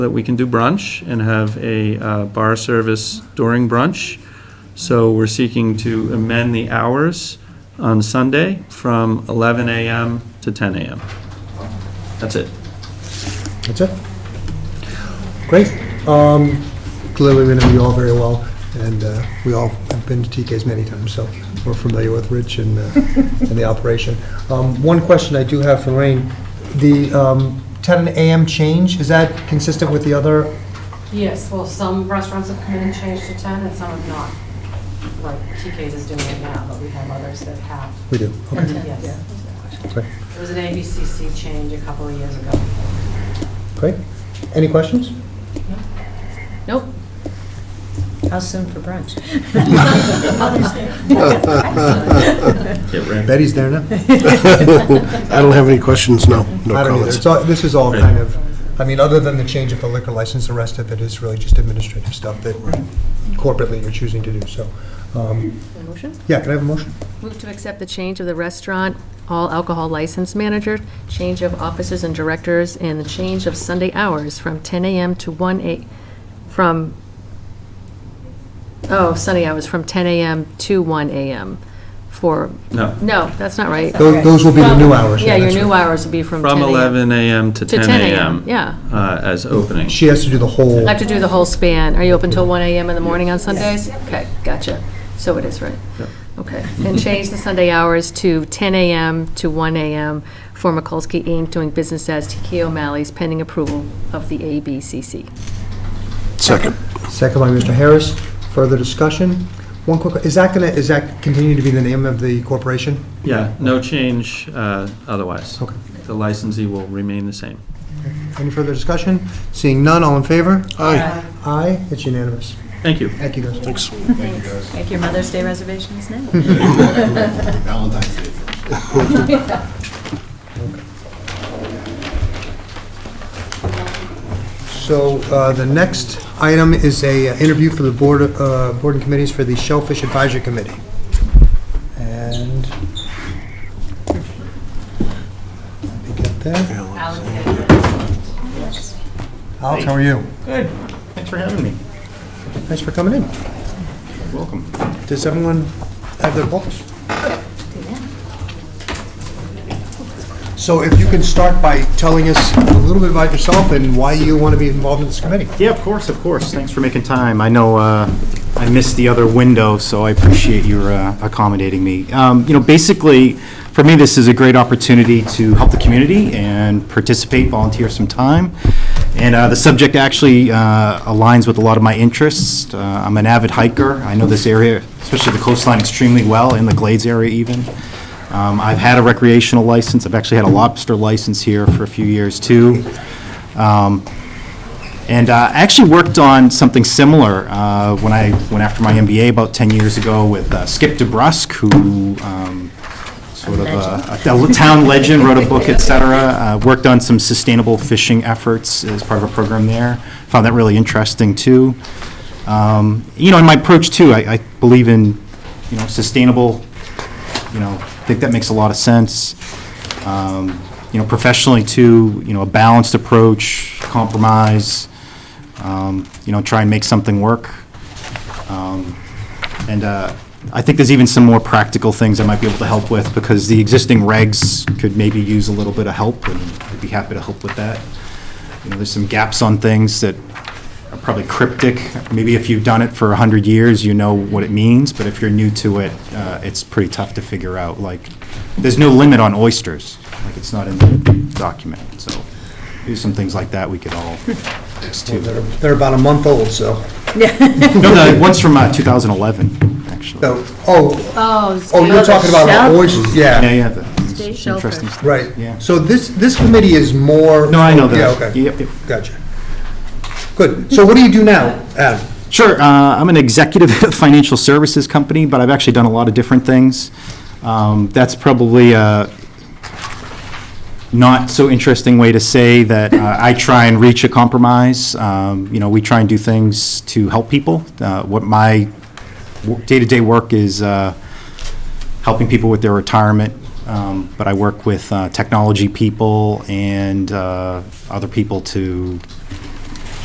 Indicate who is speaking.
Speaker 1: that we can do brunch and have a uh, bar service during brunch. So we're seeking to amend the hours on Sunday from 11 a.m. to 10 a.m. That's it.
Speaker 2: That's it. Great. Um, Clearly, we know you all very well, and uh, we all have been to TK's many times, so we're familiar with Rich and, uh, and the operation. Um, One question I do have for Lorraine, the um, 10 AM change, is that consistent with the other?
Speaker 3: Yes, well, some restaurants have come in and changed to 10 and some have not. Like TK's is doing it now, but we have others that have.
Speaker 2: We do. Okay.
Speaker 3: Yes.
Speaker 2: Great.
Speaker 3: It was an ABCC change a couple of years ago.
Speaker 2: Great. Any questions?
Speaker 4: Nope. How soon for brunch?
Speaker 1: Get ready.
Speaker 2: Betty's there now.
Speaker 5: I don't have any questions, no, no
Speaker 2: I don't either.
Speaker 5: comments.
Speaker 2: It's all- This is all kind of, I mean, other than the change of the liquor license, the rest of it is really just administrative stuff that corporately you're choosing to do, so. um,
Speaker 4: Motion?
Speaker 2: Yeah, can I have a motion?
Speaker 4: Move to accept the change of the restaurant, all alcohol license manager, change of officers and directors, and the change of Sunday hours from 10 AM to 1 A, from, oh, Sunday hours from 10 AM to 1 AM for,
Speaker 1: No,
Speaker 4: no, that's not right.
Speaker 2: Tho- Those will be the new hours.
Speaker 4: Yeah, your
Speaker 2: that's
Speaker 4: new
Speaker 2: right.
Speaker 4: hours would be from 10
Speaker 1: from
Speaker 4: AM.
Speaker 1: 11 a.m. to
Speaker 4: To
Speaker 1: 10 a.m.
Speaker 4: Yeah.
Speaker 1: uh, As opening.
Speaker 2: She has to do the whole,
Speaker 4: I have to do the whole span. Are you open till 1 AM in the morning on Sundays? Okay, gotcha. So it is, right?
Speaker 1: Yep.
Speaker 4: Okay. And change the Sunday hours to 10 AM to 1 AM for Mikulski Inc., doing business as TK O'Malley's pending approval of the ABCC.
Speaker 5: Second.
Speaker 2: second by Mr. Harris. Further discussion? One quick, is that gonna, is that continuing to be the name of the corporation?
Speaker 1: Yeah, no change uh, otherwise.
Speaker 2: Okay.
Speaker 1: The licensee will remain the same.
Speaker 2: Any further discussion? Seeing none, all in favor?
Speaker 5: Aye,
Speaker 2: Aye, it's unanimous.
Speaker 1: Thank you.
Speaker 2: Thank you, guys.
Speaker 5: thanks.
Speaker 6: Make your Mother's Day reservations now.
Speaker 2: So uh, the next item is a uh, interview for the board, of- uh, board and committees for the Shellfish Advisory Committee. And let me get that. Alex, how are you?
Speaker 1: Good. Thanks for having me.
Speaker 2: Thanks for coming in.
Speaker 1: Welcome.
Speaker 2: Does everyone have their books? So if you can start by telling us a little bit about yourself and why you want to be involved in this committee.
Speaker 7: Yeah, of course, of course. Thanks for making time. I know uh, I missed the other window, so I appreciate your uh, accommodating me. Um, You know, basically, for me, this is a great opportunity to help the community and participate, volunteer some time. And uh, the subject actually uh, aligns with a lot of my interests. Uh, I'm an avid hiker. I know this area, especially the coastline, extremely well, and the Glades area even. Um, I've had a recreational license. I've actually had a lobster license here for a few years, too. Um, and uh, I actually worked on something similar uh, when I went after my MBA about 10 years ago with uh, Skip DeBrusque, who um, sort of a- a town legend, wrote a book, et cetera, uh, worked on some sustainable fishing efforts as part of a program there. Found that really interesting, too. Um, You know, in my approach, too, I I believe in, you know, sustainable, you know, I think that makes a lot of sense um, you know, professionally too, you know, a balanced approach, compromise, um, you know, try and make something work. Um, And uh, I think there's even some more practical things I might be able to help with, because the existing regs could maybe use a little bit of help, and I'd be happy to help with that. You know, there's some gaps on things that are probably cryptic. Maybe if you've done it for 100 years, you know what it means, but if you're new to it, uh, it's pretty tough to figure out. Like, there's no limit on oysters, like, it's not in the document, so there's some things like that we could all fix too.
Speaker 2: They're they're about a month old, so.
Speaker 7: No, the one's from uh, 2011, actually.
Speaker 2: So- Oh,
Speaker 4: Oh.
Speaker 2: oh, you're talking about our oysters,
Speaker 7: Yeah,
Speaker 2: yeah,
Speaker 7: yeah, the- it's
Speaker 4: shelter.
Speaker 7: interesting. stuff.
Speaker 2: right.
Speaker 7: Yeah.
Speaker 2: So this, this committee is more.
Speaker 7: No, I know that.
Speaker 2: Yeah, okay.
Speaker 7: Yep, yep.
Speaker 2: Gotcha. Good. So what do you do now, Adam?
Speaker 7: Sure, uh, I'm an executive at a financial services company, but I've actually done a lot of different things. Um, That's probably a not so interesting way to say that uh, I try and reach a compromise. Um, You know, we try and do things to help people. Uh, What my wo- day-to-day work is uh, helping people with their retirement, um, but I work with uh, technology people and uh, other people to